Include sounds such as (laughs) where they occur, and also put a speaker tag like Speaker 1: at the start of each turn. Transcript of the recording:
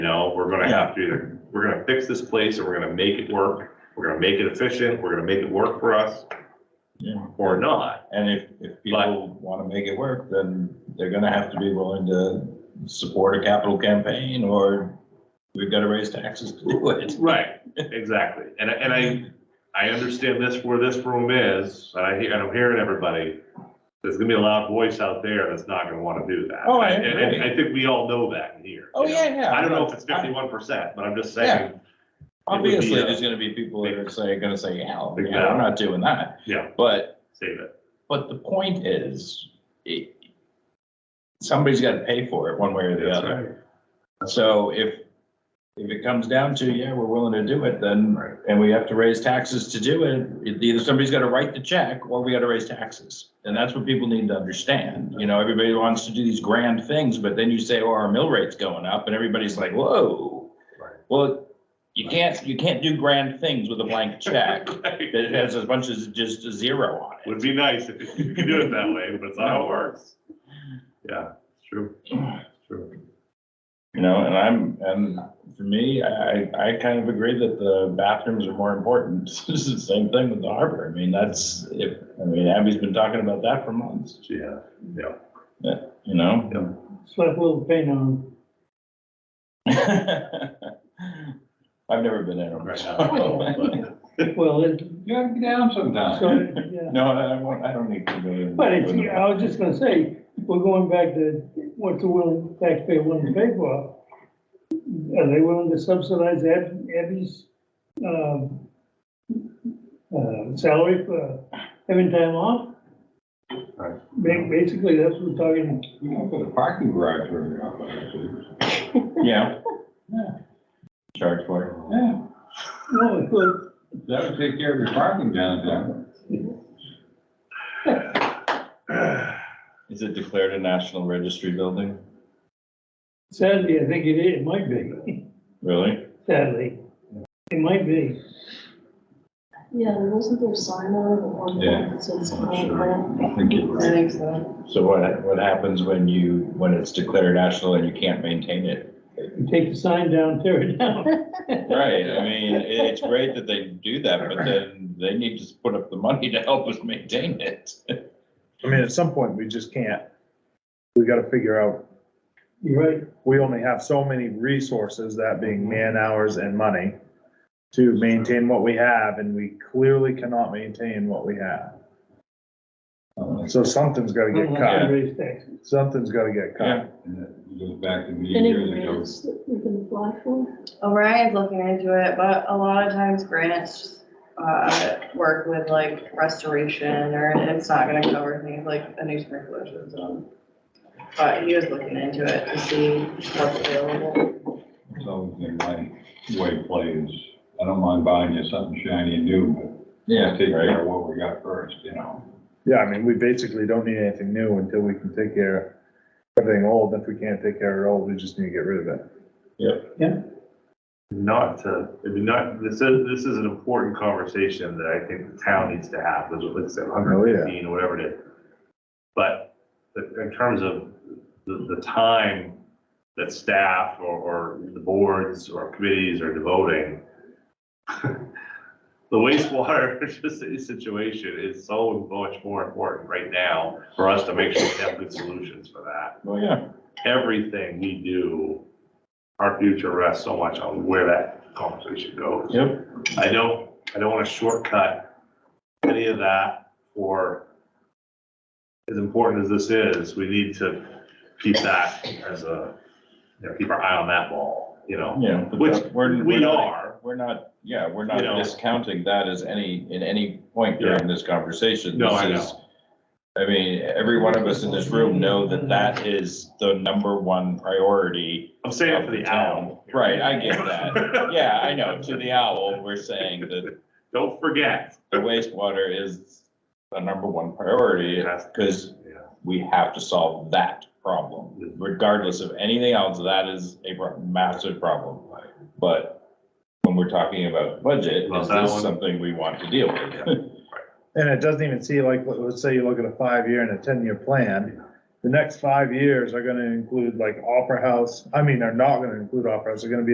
Speaker 1: We're gonna have to either, we're gonna fix this place and we're gonna make it work. We're gonna make it efficient. We're gonna make it work for us.
Speaker 2: Yeah.
Speaker 1: Or not.
Speaker 2: And if, if people want to make it work, then they're gonna have to be willing to support a capital campaign or we've got to raise taxes to do it.
Speaker 1: Right, exactly. And, I- and I, I understand this, where this room is, and I, hear- and I'm hearing everybody. There's gonna be a loud voice out there that's not gonna wanna do that.
Speaker 2: Oh, I
Speaker 1: And- and- and
Speaker 2: agree.
Speaker 1: I think we all know that here.
Speaker 2: Oh,
Speaker 1: you know?
Speaker 2: yeah, yeah.
Speaker 1: I don't know if it's fifty-one percent, but I'm just saying,
Speaker 2: Obviously,
Speaker 1: uh,
Speaker 2: there's gonna be people that are say, gonna say, hell,
Speaker 1: Big
Speaker 2: yeah, I'm
Speaker 1: bad.
Speaker 2: not doing that.
Speaker 1: Yeah.
Speaker 2: But,
Speaker 1: save it.
Speaker 2: but the point is, it, somebody's got to pay for it one way or the
Speaker 1: That's
Speaker 2: other.
Speaker 1: right.
Speaker 2: So if, if it comes down to, yeah, we're willing to do it, then,
Speaker 1: Right.
Speaker 2: and we have to raise taxes to do it, either somebody's gotta write the check or we gotta raise taxes. And that's what people need to understand. You know, everybody wants to do these grand things, but then you say, oh, our mill rate's going up and everybody's like, whoa.
Speaker 1: Right.
Speaker 2: Well, you can't, you can't do grand things with a blank check (laughs) that
Speaker 1: Right.
Speaker 2: has as much as just a zero on it.
Speaker 1: Would be nice if you could do it that way, but it's not how it works. (laughs) Yeah, it's true, it's true.
Speaker 2: You know, and I'm, and for me, I, I kind of agree that the bathrooms are more important. (laughs) It's the same thing with the harbor. I mean, that's, if, I mean, Abby's been talking about that for months,
Speaker 1: Yeah, yeah.
Speaker 2: you know? (laughs)
Speaker 3: Slap a little paint on.
Speaker 2: I've never been in (laughs) them.
Speaker 1: Right.
Speaker 2: so-
Speaker 3: Well, it,
Speaker 2: You gotta be down
Speaker 3: so,
Speaker 2: sometime.
Speaker 3: yeah.
Speaker 2: No, I won't, I don't need to go. in
Speaker 3: But it's,
Speaker 2: with them.
Speaker 3: I was just gonna say, we're going back to what the willing taxpayer willing to pay for. Are they willing to subsidize Ab- Abby's, um, uh, salary for having time off?
Speaker 1: Right.
Speaker 3: Ba- Basically, that's what we're talking,
Speaker 4: You can put a parking garage where you're on.
Speaker 2: Yeah. Yeah. Charge for
Speaker 4: Yeah,
Speaker 3: no, it's good.
Speaker 4: that would take care of your parking downtown.
Speaker 2: it. Is it declared a national registry building?
Speaker 3: sadly, I think it is, it might be,
Speaker 2: Really?
Speaker 3: sadly. It might be,
Speaker 5: Yeah, wasn't there a sign on it at one
Speaker 4: Yeah,
Speaker 5: point that said
Speaker 4: I'm
Speaker 5: something like
Speaker 4: sure. I think you're
Speaker 5: that? I
Speaker 4: right.
Speaker 5: think so.
Speaker 2: So what, what happens when you, when it's declared national and you can't maintain it?
Speaker 3: You take the sign down, tear it down. (laughs)
Speaker 2: Right, I mean, it- it's great that they do that, but then they need to put up the money to help us maintain it.
Speaker 6: I mean, at some point, we just can't, we gotta figure out,
Speaker 3: You're right,
Speaker 6: we only have so many resources, that being man hours and money, to maintain what we have, and we clearly cannot maintain what we have.
Speaker 4: Oh,
Speaker 6: So something's gotta get
Speaker 3: unless
Speaker 6: cut,
Speaker 3: you raise taxes.
Speaker 6: something's gotta get
Speaker 2: Yeah.
Speaker 6: cut.
Speaker 4: And that Goes back to me
Speaker 5: Any
Speaker 4: years ago.
Speaker 5: grants that we can apply for?
Speaker 7: Well, Ryan's looking into it, but a lot of times grants, uh, work with like restoration or it's not gonna cover things like a new sprinkler system. But he was looking into it to see what's available.
Speaker 4: It's always been my way of play is, I don't mind buying you something shiny and new, but take
Speaker 2: Right.
Speaker 4: care of what we got first, you know?
Speaker 6: Yeah, I mean, we basically don't need anything new until we can take care of everything old, if we can't take care of it old, we just need to get rid of it.
Speaker 1: Not to, I mean, not, this is, this is an important conversation that I think the town needs to have, there's, like I said,
Speaker 6: Oh, yeah.
Speaker 1: hundred fifteen, or whatever it is. But the- in terms of the, the time that staff or, or the boards or committees are devoting, (laughs) the wastewater (laughs) situation is so much more important right now for us to make sure we have good solutions for that
Speaker 2: Oh, yeah.
Speaker 1: everything we do, our future rests so much on where that conversation goes.
Speaker 2: Yep.
Speaker 1: I don't, I don't want to shortcut any of that or as important as this is, we need to keep that as a, you know, keep our eye on that ball, you know,
Speaker 2: Yeah. but
Speaker 1: which
Speaker 2: that- we're- we're
Speaker 1: we
Speaker 2: not-
Speaker 1: are.
Speaker 2: We're not, yeah, we're not
Speaker 1: You know.
Speaker 2: discounting that as any, in any point during this conversation.
Speaker 1: No,
Speaker 2: This
Speaker 1: I know.
Speaker 2: is- I mean, every one of us in this room know that that is the number one priority.
Speaker 1: I'm saying it for the owl.
Speaker 2: Right, I get that. Yeah, I know, to the owl, we're saying that
Speaker 1: Don't forget.
Speaker 2: the wastewater is the number one priority, because
Speaker 1: Yeah.
Speaker 2: we have to solve that problem.
Speaker 1: Mm-hmm.
Speaker 2: Regardless of anything else, that is a pro- massive problem. But when we're talking about budget,
Speaker 1: Well,
Speaker 2: is
Speaker 1: that
Speaker 2: this
Speaker 1: one-
Speaker 2: something we want to deal (laughs) with?
Speaker 6: And it doesn't even see like, let- let's say you look at a five-year and a ten-year plan. The next five years are gonna include like Opera House, I mean, they're not gonna include Opera House, they're gonna be